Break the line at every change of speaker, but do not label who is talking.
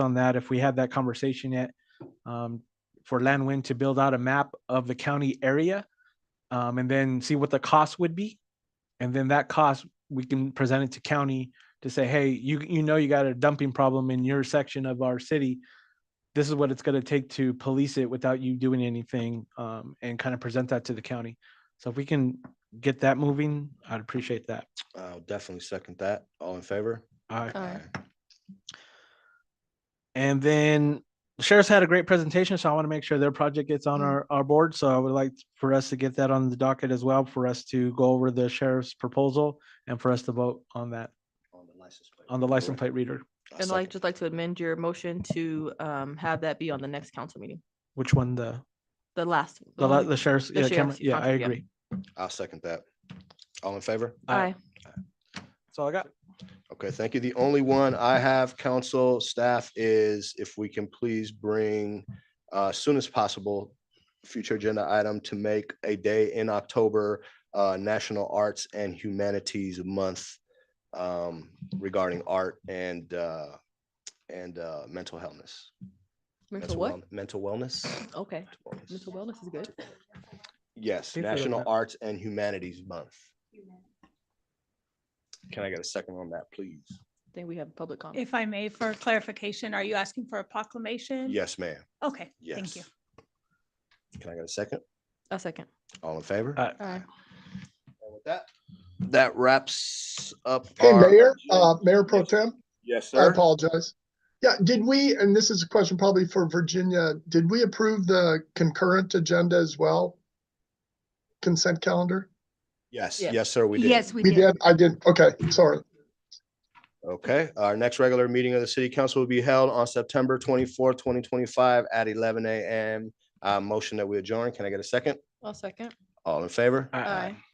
on that if we had that conversation yet. um, For Landwin to build out a map of the county area um, and then see what the cost would be. And then that cost, we can present it to county to say, hey, you, you know, you got a dumping problem in your section of our city. This is what it's gonna take to police it without you doing anything um, and kind of present that to the county. So if we can get that moving, I'd appreciate that.
I'll definitely second that. All in favor?
All right.
Aye.
And then the sheriff's had a great presentation, so I want to make sure their project gets on
Mm.
our, our board. So I would like for us to get that on the docket as well, for us to go over the sheriff's proposal and for us to vote on that,
On the license plate.
on the license plate reader.
I'll
I'd like,
second.
just like to amend your motion to um have that be on the next council meeting,
Which one, the,
the last.
the
one
li- the sheriff's,
the
yeah, camera-
sheriff's
yeah, I
contract, yeah.
agree.
I'll second that. All in favor?
Aye.
That's all I got.
Okay, thank you. The only one I have, council staff, is if we can please bring uh soon as possible, future agenda item to make a day in October, uh National Arts and Humanities Month um regarding art and uh and uh mental wellness.
Mental what?
welln- Mental wellness.
Okay,
Wellness.
mental wellness is good.
Yes,
Think we got
National
that.
Arts and Humanities Month. Can I get a second on that, please?
I think we have public comment.
If I may, for clarification, are you asking for a proclamation?
Yes, ma'am.
Okay,
Yes.
thank you.
Can I get a second?
A second.
All in favor?
Aye.
Aye.
And with That Uh, that wraps up.
Hey,
our-
Mayor, uh, Mayor Pro Tem,
Yes,
I
sir.
apologize. Yeah, did we, and this is a question probably for Virginia, did we approve the concurrent agenda as well? Consent calendar?
Yes,
Yes.
yes, sir, we did.
Yes, we
We
did.
did, I did, okay, sorry.
Okay, our next regular meeting of the city council will be held on September twenty-fourth, twenty twenty-five at eleven AM. Uh, motion that we adjourn. Can I get a second?
A second.
All in favor?
Aye.
Aye.